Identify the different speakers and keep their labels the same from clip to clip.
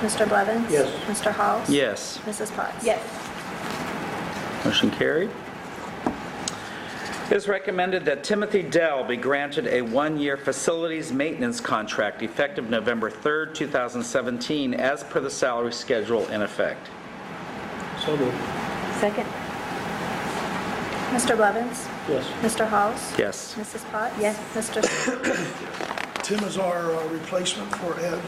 Speaker 1: Mr. Blevins?
Speaker 2: Yes.
Speaker 1: Mr. Halls?
Speaker 3: Yes.
Speaker 1: Mrs. Potts?
Speaker 3: Motion carried. It is recommended that Timothy Dell be granted a one-year facilities maintenance contract effective November 3rd, 2017, as per the salary schedule in effect.
Speaker 2: So moved.
Speaker 4: Second?
Speaker 1: Mr. Blevins?
Speaker 2: Yes.
Speaker 1: Mr. Halls?
Speaker 3: Yes.
Speaker 1: Mrs. Potts?
Speaker 4: Yes.
Speaker 1: Mr. Sh-
Speaker 5: Tim is our uh, replacement for Ed.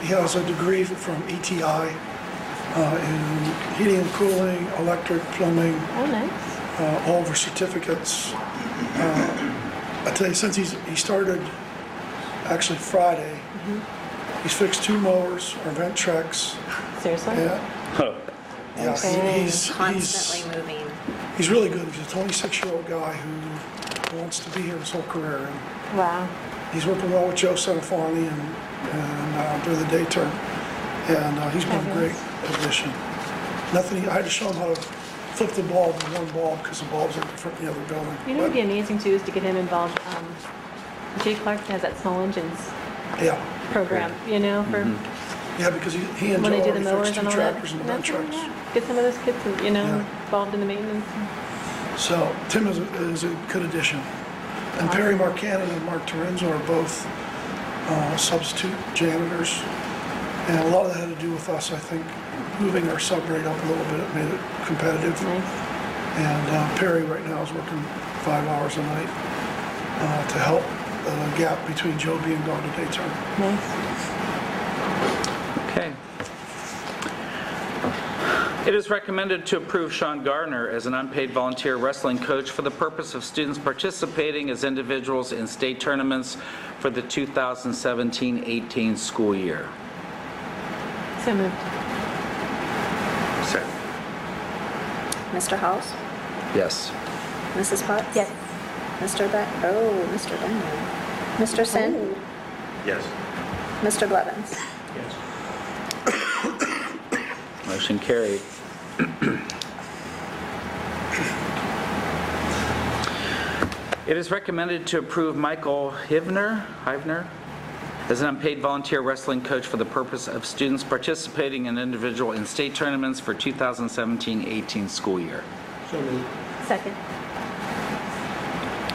Speaker 5: He has a degree from ETI uh, in heating and cooling, electric, plumbing,
Speaker 4: Oh, nice.
Speaker 5: uh, all of our certificates. Uh, I tell you, since he's, he started actually Friday, he's fixed two mowers, our vent tracks.
Speaker 4: Seriously?
Speaker 5: Yeah,
Speaker 3: Huh.
Speaker 5: yeah,
Speaker 4: Okay.
Speaker 5: he- he's, he's,
Speaker 6: constantly moving.
Speaker 5: he's really good. He's a 26-year-old guy who wants to be here his whole career. and
Speaker 4: Wow.
Speaker 5: He's working well with Joe Sanafani and, and uh, through the day term, and uh, he's been a great addition. Nothing, I had to show him how to flip the bulb in one bulb because the bulbs are different in the other building.
Speaker 4: You know what would be
Speaker 5: But,
Speaker 4: amazing too is to get him involved. Um, Jay Clark has that small engines
Speaker 5: Yeah,
Speaker 4: program, you know, for
Speaker 5: Mm-hmm. yeah, because he he and
Speaker 4: when
Speaker 5: Joe
Speaker 4: they do the
Speaker 5: already
Speaker 4: mowers
Speaker 5: fixed two
Speaker 4: and all that.
Speaker 5: tractors and the
Speaker 4: That's
Speaker 5: dump
Speaker 4: right,
Speaker 5: trucks.
Speaker 4: yeah. Get some of those kids, you know,
Speaker 5: Yeah.
Speaker 4: involved in the maintenance.
Speaker 5: So Tim is, a- is a good addition. And Perry Marcannon and Mark Torrenzo are both uh, substitute janitors. And a lot of that had to do with us, I think, moving our sub rate up a little bit, it made it competitive.
Speaker 4: Nice.
Speaker 5: And uh, Perry right now is working five hours a night uh, to help the gap between Joe being gone to day term.
Speaker 4: Nice.
Speaker 3: Okay. It is recommended to approve Sean Gardner as an unpaid volunteer wrestling coach for the purpose of students participating as individuals in state tournaments for the 2017-18 school year.
Speaker 4: So moved.
Speaker 3: Sir?
Speaker 1: Mr. Halls?
Speaker 3: Yes.
Speaker 1: Mrs. Potts? Mr. Ba, oh, Mr. Daniel. Mr. Sin?
Speaker 2: Yes.
Speaker 4: Oh.
Speaker 1: Mr. Blevins?
Speaker 2: Yes.
Speaker 3: Motion carried. It is recommended to approve Michael Hivner, Hivner, as an unpaid volunteer wrestling coach for the purpose of students participating in individual and state tournaments for 2017-18 school year.
Speaker 2: So moved.
Speaker 4: Second?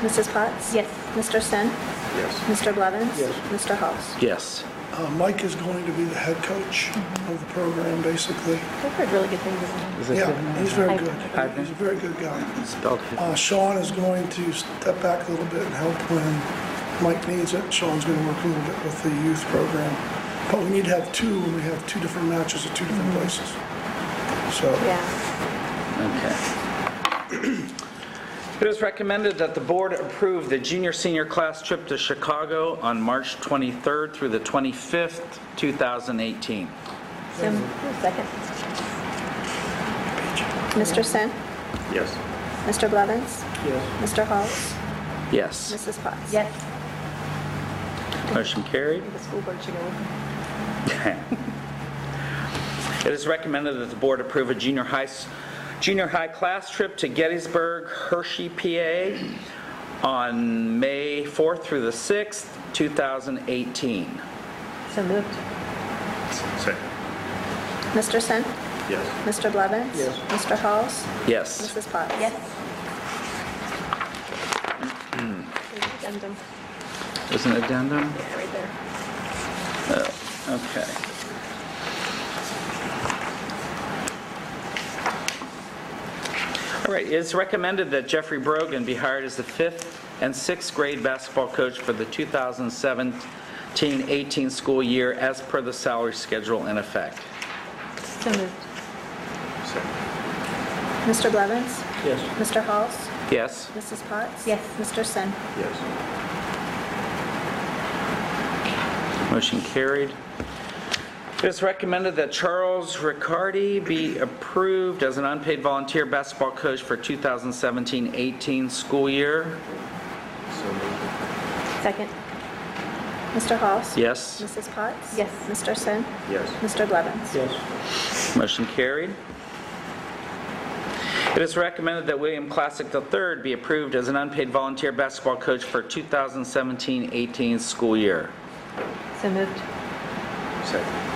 Speaker 1: Mrs. Potts?
Speaker 4: Yes.
Speaker 1: Mr. Sin?
Speaker 2: Yes.
Speaker 1: Mr. Blevins?
Speaker 2: Yes.
Speaker 1: Mr. Halls?
Speaker 3: Yes.
Speaker 5: Uh, Mike is going to be the head coach of the program, basically.
Speaker 4: I've heard really good things about him.
Speaker 5: Yeah, he's very good.
Speaker 3: Hivner?
Speaker 5: He's a very good guy.
Speaker 3: Spelled
Speaker 5: Uh, Sean is going to step back a little bit and help when Mike needs it. Sean's going to work a little bit with the youth program. But we need to have two, and we have two different matches at two different places. So,
Speaker 4: Yeah.
Speaker 3: Okay. It is recommended that the board approve the junior-senior class trip to Chicago on March 23rd through the 25th, 2018.
Speaker 4: So moved. Second?
Speaker 1: Mr. Sin?
Speaker 2: Yes.
Speaker 1: Mr. Blevins?
Speaker 2: Yes.
Speaker 1: Mr. Halls?
Speaker 3: Yes.
Speaker 1: Mrs. Potts?
Speaker 4: Yes.
Speaker 3: Motion carried.
Speaker 4: The school board should go with him.
Speaker 3: It is recommended that the board approve a junior high, s- junior high class trip to Gettysburg, Hershey, PA on May 4th through the 6th, 2018.
Speaker 4: So moved.
Speaker 2: Second.
Speaker 1: Mr. Sin?
Speaker 2: Yes.
Speaker 1: Mr. Blevins?
Speaker 2: Yes.
Speaker 1: Mr. Halls?
Speaker 3: Yes.
Speaker 1: Mrs. Potts?
Speaker 4: Addendum.
Speaker 3: There's an addendum?
Speaker 4: Yeah, right there.
Speaker 3: Okay. All right, it's recommended that Jeffrey Brogan be hired as the fifth and sixth grade basketball coach for the 2017-18 school year as per the salary schedule in effect.
Speaker 4: So moved.
Speaker 2: Second.
Speaker 1: Mr. Blevins?
Speaker 2: Yes.
Speaker 1: Mr. Halls?
Speaker 3: Yes?
Speaker 1: Mrs. Potts?
Speaker 4: Yes.
Speaker 1: Mr. Sin?
Speaker 2: Yes.
Speaker 3: Motion carried. It is recommended that Charles Riccardi be approved as an unpaid volunteer basketball coach for 2017-18 school year.
Speaker 2: So moved.
Speaker 4: Second?
Speaker 1: Mr. Halls?
Speaker 3: Yes?
Speaker 1: Mrs. Potts?
Speaker 4: Yes.
Speaker 1: Mr. Sin?
Speaker 2: Yes.
Speaker 1: Mr. Blevins?
Speaker 2: Yes.
Speaker 3: Motion carried. It is recommended that William Classic III be approved as an unpaid volunteer basketball coach for 2017-18 school year.
Speaker 4: So moved.
Speaker 2: Second.